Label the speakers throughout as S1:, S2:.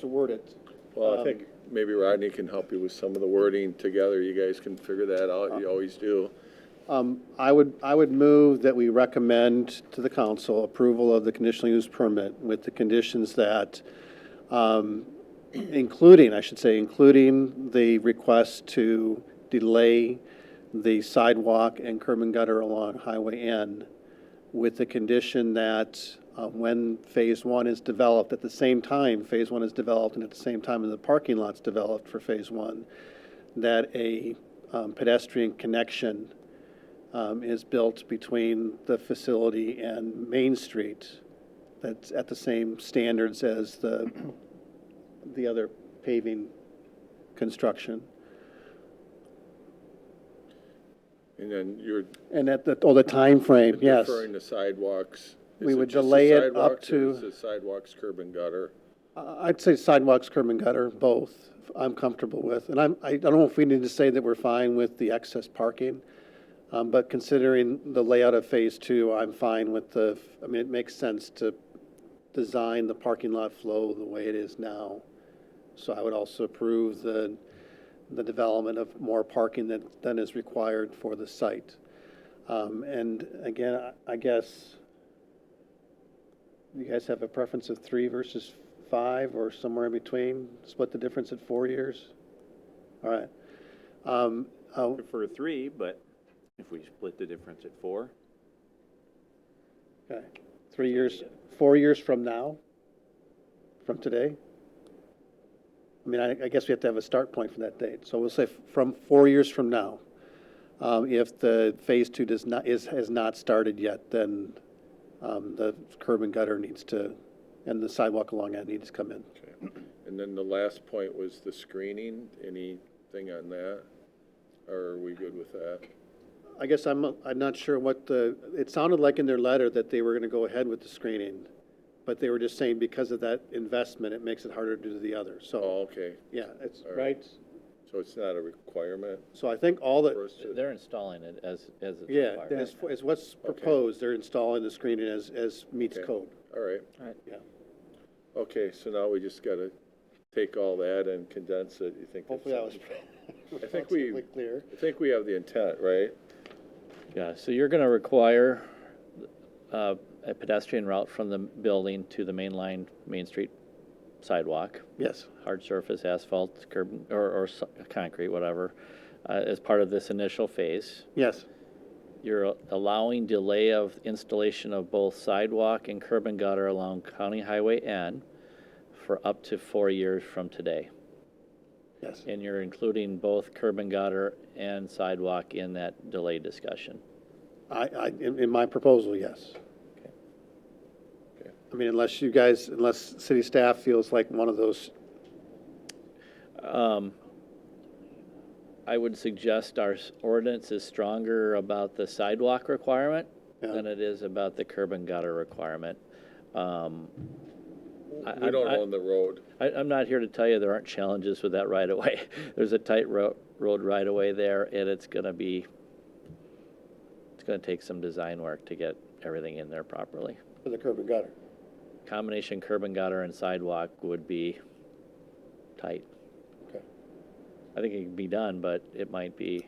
S1: to word it. Um,
S2: Well, I think maybe Rodney can help you with some of the wording together. You guys can figure that out.
S1: Uh,
S2: You always do.
S1: I would, I would move that we recommend to the council approval of the conditional use permit with the conditions that, um, including, I should say, including the request to delay the sidewalk and curb and gutter along Highway N with the condition that uh, when Phase One is developed, at the same time Phase One is developed and at the same time the parking lot's developed for Phase One, that a um, pedestrian connection um, is built between the facility and Main Street that's at the same standards as the, the other paving construction.
S2: And then you're
S1: And at the, oh, the timeframe, yes.
S2: referring to sidewalks. Is
S1: We would
S2: just the
S1: delay it up
S2: sidewalks or
S1: to-
S2: Is it sidewalks, curb and gutter?
S1: I- I'd say sidewalks, curb and gutter, both, I'm comfortable with. And I'm, I don't know if we need to say that we're fine with the excess parking, um, but considering the layout of Phase Two, I'm fine with the, I mean, it makes sense to design the parking lot flow the way it is now. So I would also approve the, the development of more parking than, than is required for the site. Um, and again, I- I guess, you guys have a preference of three versus five or somewhere in between? Split the difference at four years? All right. Um, uh,
S3: prefer three, but if we split the difference at four,
S1: okay. Three years, four years from now? From today? I mean, I, I guess we have to have a start point for that date. So we'll say f- from four years from now. Um, if the phase two does not, is, has not started yet, then, um, the curb and gutter needs to, and the sidewalk along that needs to come in.
S2: And then the last point was the screening. Anything on that? Or are we good with that?
S1: I guess I'm, I'm not sure what the, it sounded like in their letter that they were gonna go ahead with the screening, but they were just saying because of that investment, it makes it harder to do the other, so,
S2: Oh, okay.
S1: yeah, it's,
S2: All right.
S1: right?
S2: So it's not a requirement
S1: So I think all
S2: for
S1: that,
S2: us to,
S4: They're installing it as, as it's
S1: yeah,
S4: required.
S1: is, is what's proposed, they're installing the screening as, as meets
S2: Okay.
S1: code,
S2: all right.
S1: yeah.
S2: Okay, so now we just gotta take all that and condense it. You think? that's-
S1: Hopefully that was
S2: I think we-
S1: relatively clear.
S2: I think we have the intent, right?
S4: Yeah, so you're gonna require, uh, a pedestrian route from the building to the main line, Main Street sidewalk,
S1: Yes,
S4: hard surface, asphalt, curb, or, or s- concrete, whatever, uh, as part of this initial phase.
S1: yes,
S4: You're allowing delay of installation of both sidewalk and curb and gutter along County Highway N for up to four years from today.
S1: yes,
S4: And you're including both curb and gutter and sidewalk in that delay discussion.
S1: I, I, in, in my proposal, yes.
S4: Okay.
S2: Okay.
S1: I mean, unless you guys, unless city staff feels like one of those,
S4: Um, I would suggest our s- ordinance is stronger about the sidewalk requirement
S1: Yeah.
S4: than it is about the curb and gutter requirement. Um, I-
S2: We don't
S4: I-
S2: own the road.
S4: I, I'm not here to tell you there aren't challenges with that right of way. There's a tight ro- road right of way there, and it's gonna be, it's gonna take some design work to get everything in there properly.
S1: for the curb and gutter.
S4: Combination curb and gutter and sidewalk would be tight.
S1: Okay.
S4: I think it can be done, but it might be,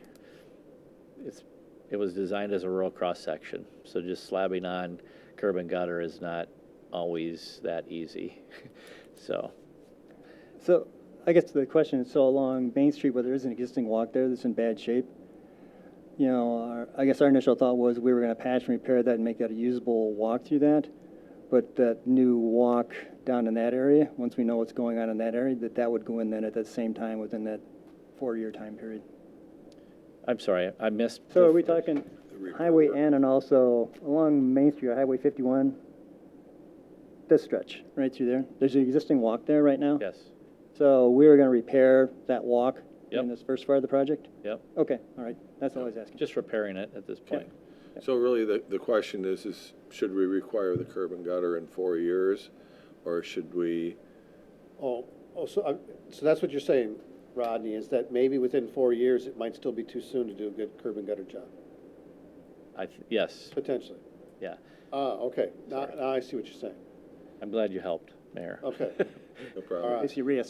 S4: it's, it was designed as a rural cross-section. So just slabbing on curb and gutter is not always that easy. So,
S5: So I guess the question is, so along Main Street, where there is an existing walk there that's in bad shape, you know, our, I guess our initial thought was we were gonna patch and repair that and make that a usable walk through that. But that new walk down in that area, once we know what's going on in that area, that that would go in then at that same time within that four-year time period.
S4: I'm sorry, I missed.
S5: So
S4: the
S5: are we
S4: f-
S5: talking
S2: repair
S5: Highway
S2: work.
S5: N and also along Main Street, or Highway fifty-one? This stretch, right through there. There's an existing walk there right now?
S4: Yes,
S5: So we were gonna repair that walk
S4: Yep.
S5: in this first part of the project?
S4: yep,
S5: Okay, all right, that's all I was asking.
S4: just repairing it at this point.
S2: So really, the, the question is, is should we require the curb and gutter in four years? Or should we,
S1: Oh, oh, so, uh, so that's what you're saying, Rodney, is that maybe within four years, it might still be too soon to do a good curb and gutter job,
S4: I, th- yes,
S1: potentially.
S4: yeah.
S1: Ah, okay, now, now I see what you're saying.
S5: Oh,
S4: I'm glad you helped, Mayor.
S1: Okay.
S6: no problem.
S1: If you reassess